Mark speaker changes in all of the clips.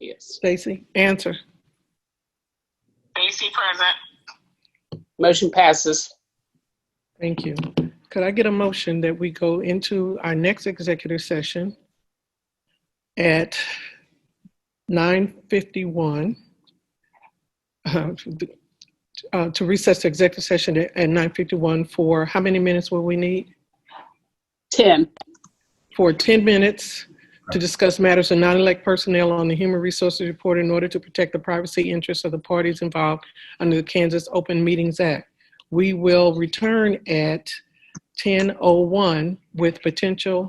Speaker 1: Yes.
Speaker 2: Stacy, answer.
Speaker 3: Stacy present.
Speaker 1: Motion passes.
Speaker 2: Thank you. Could I get a motion that we go into our next executive session at 9:51? uh, uh, To recess the executive session at at 9:51 for, how many minutes will we need?
Speaker 1: 10.
Speaker 2: For 10 minutes to discuss matters of non-elect personnel on the Human Resources Report in order to protect the privacy interests of the parties involved under the Kansas Open Meetings Act. We will return at 10:01 with potential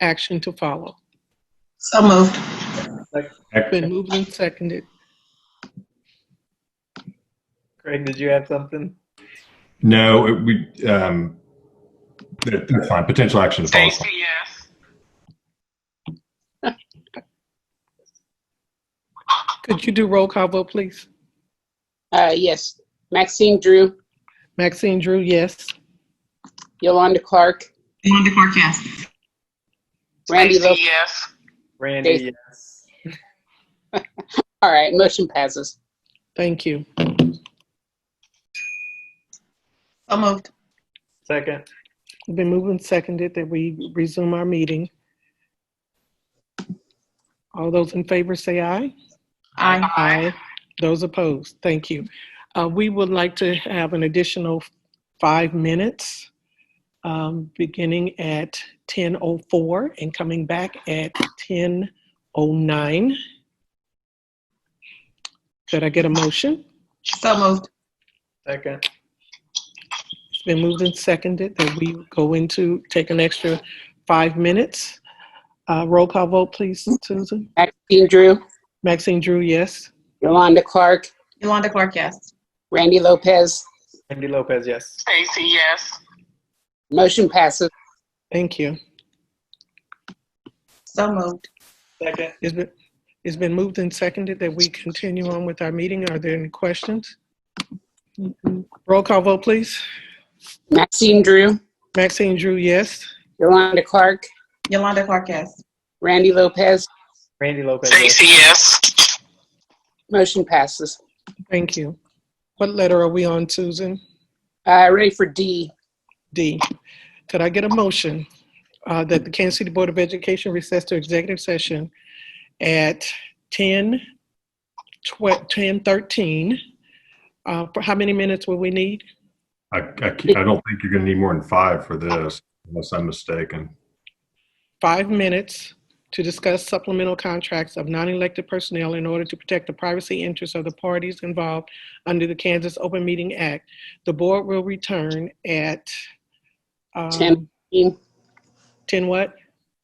Speaker 2: action to follow.
Speaker 4: So moved.
Speaker 2: Been moved and seconded.
Speaker 5: Craig, did you have something?
Speaker 6: No, it- we, um, that- that's fine. Potential action to follow.
Speaker 3: Stacy, yes.
Speaker 2: Could you do roll call vote, please?
Speaker 1: Uh, yes. Maxine Drew,
Speaker 2: Maxine Drew, yes.
Speaker 1: Yolanda Clark,
Speaker 4: Wanda Clark, yes.
Speaker 1: Randy Lopez.
Speaker 3: Stacy, yes.
Speaker 5: Randy, yes.
Speaker 1: All right, motion passes.
Speaker 2: Thank you.
Speaker 4: So moved.
Speaker 5: Second,
Speaker 2: Been moved and seconded that we resume our meeting. All those in favor say aye.
Speaker 4: Aye.
Speaker 2: Aye. Those opposed, thank you. Uh, We would like to have an additional five minutes, um, beginning at 10:04 and coming back at 10:09. Could I get a motion?
Speaker 4: So moved.
Speaker 5: second,
Speaker 2: It's been moved and seconded that we go into, take an extra five minutes. Uh, Roll call vote, please, Susan.
Speaker 1: Maxine Drew,
Speaker 2: Maxine Drew, yes.
Speaker 1: Yolanda Clark,
Speaker 4: Yolanda Clark, yes.
Speaker 1: Randy Lopez.
Speaker 5: Randy Lopez, yes.
Speaker 3: Stacy, yes.
Speaker 1: Motion passes.
Speaker 2: Thank you.
Speaker 4: So moved.
Speaker 5: Second,
Speaker 2: It's been, it's been moved and seconded that we continue on with our meeting. Are there any questions? Roll call vote, please.
Speaker 1: Maxine Drew,
Speaker 2: Maxine Drew, yes.
Speaker 1: Yolanda Clark,
Speaker 4: Yolanda Clark, yes.
Speaker 1: Randy Lopez.
Speaker 5: Randy Lopez, yes.
Speaker 3: Stacy, yes.
Speaker 1: Motion passes.
Speaker 2: Thank you. What letter are we on, Susan?
Speaker 1: Uh, ready for D.
Speaker 2: D. Could I get a motion uh, that the Kansas City Board of Education recess to executive session at 10, 12, 10:13? Uh, For how many minutes will we need?
Speaker 6: I, I, can't- I don't think you're going to need more than five for this, unless I'm mistaken.
Speaker 2: five minutes to discuss supplemental contracts of non-elected personnel in order to protect the privacy interests of the parties involved under the Kansas Open Meeting Act. The board will return at, um,
Speaker 1: Ten.
Speaker 2: 10 what?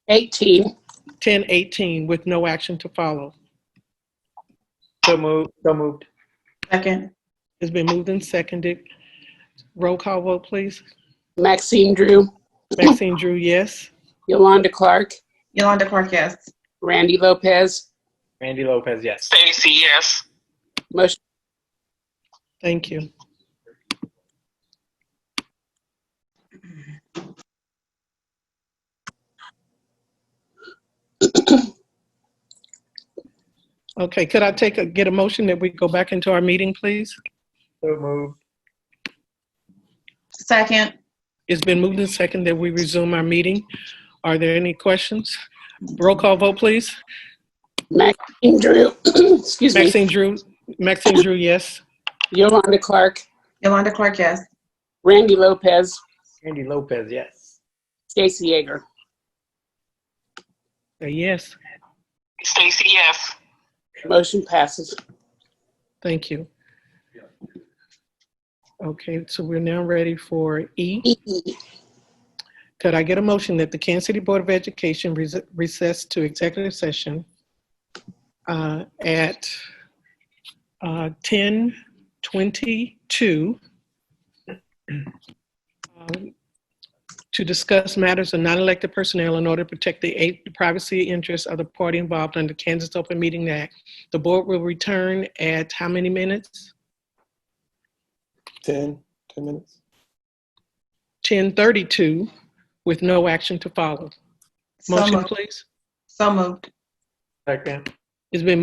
Speaker 1: 18.
Speaker 2: 10:18 with no action to follow.
Speaker 5: So moved, so moved.
Speaker 4: Second.
Speaker 2: It's been moved and seconded. Roll call vote, please.
Speaker 1: Maxine Drew,
Speaker 2: Maxine Drew, yes.
Speaker 1: Yolanda Clark,
Speaker 4: Yolanda Clark, yes.
Speaker 1: Randy Lopez.
Speaker 5: Randy Lopez, yes.
Speaker 3: Stacy, yes.
Speaker 1: Motion
Speaker 2: Thank you. Okay, could I take a, get a motion that we go back into our meeting, please?
Speaker 5: So moved,
Speaker 4: Second.
Speaker 2: It's been moved and second that we resume our meeting. Are there any questions? Roll call vote, please.
Speaker 1: Maxine Drew, excuse me,
Speaker 2: Maxine Drew, Maxine Drew, yes.
Speaker 1: Yolanda Clark,
Speaker 4: Yolanda Clark, yes.
Speaker 1: Randy Lopez,
Speaker 5: Randy Lopez, yes.
Speaker 1: Stacy Yeager.
Speaker 2: A yes,
Speaker 3: Stacy, yes.
Speaker 1: Motion passes.
Speaker 2: thank you. Okay, so we're now ready for E. Could I get a motion that the Kansas City Board of Education res- recess to executive session uh, at uh, 10:22 um, to discuss matters of non-elected personnel in order to protect the eight- the privacy interests of the party involved under Kansas Open Meeting Act? The board will return at how many minutes?
Speaker 7: 10, 10 minutes.
Speaker 2: 10:32 with no action to follow.
Speaker 4: So
Speaker 2: Motion,
Speaker 4: moved.
Speaker 2: please.
Speaker 4: So moved.
Speaker 5: Second.
Speaker 2: It's been